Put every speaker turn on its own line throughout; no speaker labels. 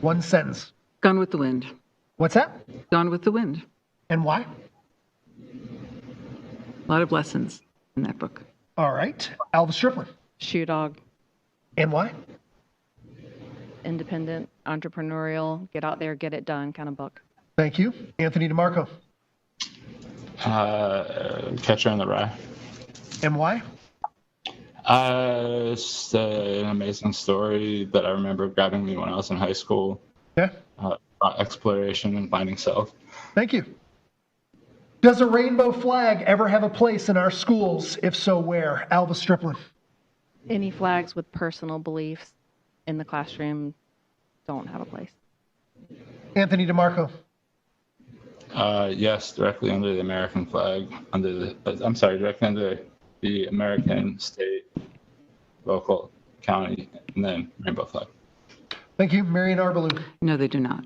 One sentence.
Gone with the Wind.
What's that?
Gone with the Wind.
And why?
A lot of lessons in that book.
All right. Alva Strickland.
Shoe dog,
And why?
independent, entrepreneurial, get out there, get it done kind of book.
Thank you. Anthony DeMarco.
Uh, Catcher in the Rye.
And why?
Uh, it's uh, an amazing story that I remember grabbing me when I was in high school.
Okay.
Uh, exploration and finding self.
Thank you. Does a rainbow flag ever have a place in our schools? If so, where? Alva Strickland.
Any flags with personal beliefs in the classroom don't have a place.
Anthony DeMarco.
Uh, yes, directly under the American flag, under the, uh, I'm sorry, directly under the American, state, local, county, and then rainbow flag.
Thank you. Marion Arbalou.
No, they do not.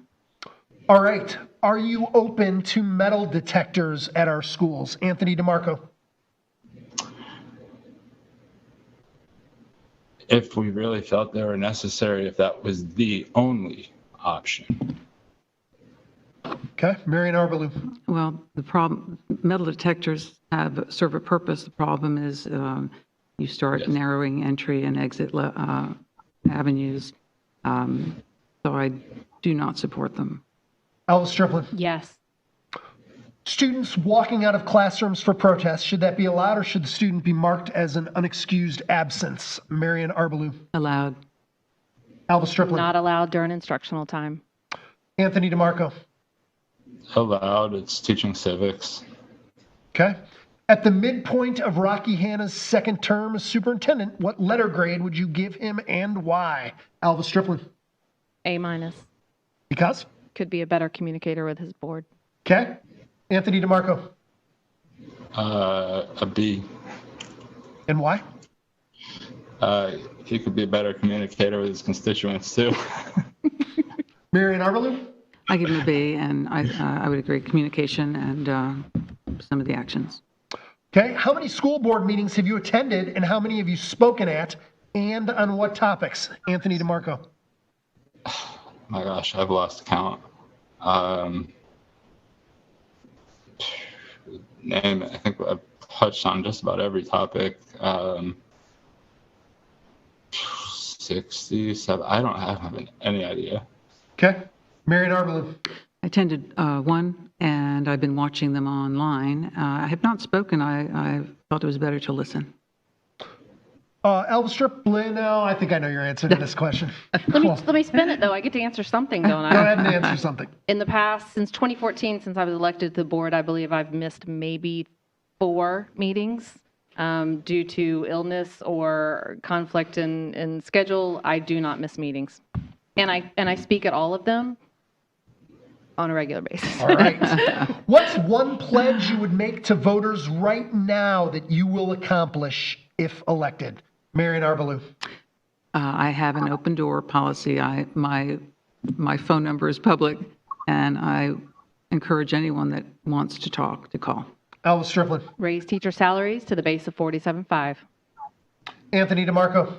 All right. Are you open to metal detectors at our schools? Anthony DeMarco.
If we really felt they were necessary, if that was the only option.
Okay. Marion Arbalou.
Well, the problem, metal detectors have, serve a purpose. The problem is um, you start narrowing entry and exit le- uh, avenues. Um, So I do not support them.
Alva Strickland.
Yes.
Students walking out of classrooms for protest, should that be allowed or should the student be marked as an unexcused absence? Marion Arbalou.
Allowed.
Alva Strickland.
Not allowed during instructional time.
Anthony DeMarco.
Allowed, it's teaching civics.
Okay. At the midpoint of Rocky Hanna's second term as superintendent, what letter grade would you give him and why? Alva Strickland.
A minus.
Because?
Could be a better communicator with his board.
Okay. Anthony DeMarco.
Uh, a B.
And why?
Uh, he could be a better communicator with his constituents too.
Marion Arbalou.
I give them a B, and I, uh, I would agree, communication and uh, some of the actions.
Okay. How many school board meetings have you attended and how many have you spoken at and on what topics? Anthony DeMarco.
My gosh, I've lost count. Um, name, I think I've touched on just about every topic. Um, 60, 70, I don't have, have any idea.
Okay. Marion Arbalou.
I attended uh, one, and I've been watching them online. Uh, I have not spoken. I, I felt it was better to listen.
Uh, Alva Strickland. No, I think I know your answer to this question.
Let me,
Cool.
let me spin it though. I get to answer something, don't
Go
I?
ahead and answer something.
In the past, since 2014, since I was elected to the board, I believe I've missed maybe four meetings um, due to illness or conflict in, in schedule. I do not miss meetings. And I, and I speak at all of them on a regular basis.
All right. What's one pledge you would make to voters right now that you will accomplish if elected? Marion Arbalou.
Uh, I have an open door policy. I, my, my phone number is public, and I encourage anyone that wants to talk to call.
Alva Strickland.
Raise teacher salaries to the base of 47.5.
Anthony DeMarco.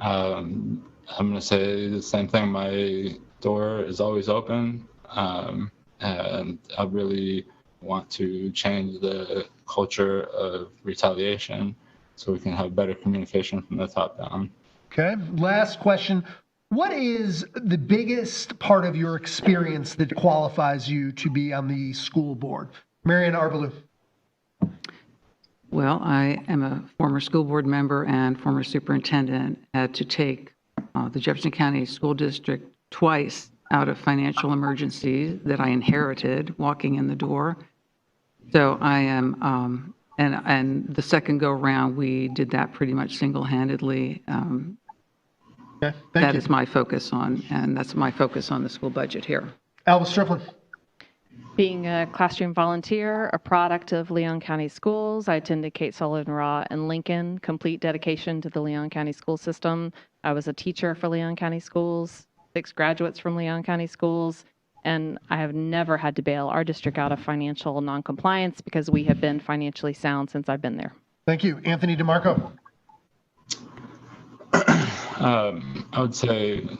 Um, I'm going to say the same thing. My door is always open. Um, and I really want to change the culture of retaliation so we can have better communication from the top down.
Okay. Last question. What is the biggest part of your experience that qualifies you to be on the school board? Marion Arbalou.
Well, I am a former school board member and former superintendent, had to take uh, the Jefferson County School District twice out of financial emergencies that I inherited walking in the door. So I am, um, and, and the second go-around, we did that pretty much single-handedly. Um,
Okay. Thank
That
you.
is my focus on, and that's my focus on the school budget here.
Alva Strickland.
Being a classroom volunteer, a product of Leon County Schools, I attended Kate Sullivan Raw in Lincoln, complete dedication to the Leon County school system. I was a teacher for Leon County Schools, six graduates from Leon County Schools, and I have never had to bail our district out of financial noncompliance because we have been financially sound since I've been there.
Thank you. Anthony DeMarco.
Um, I would say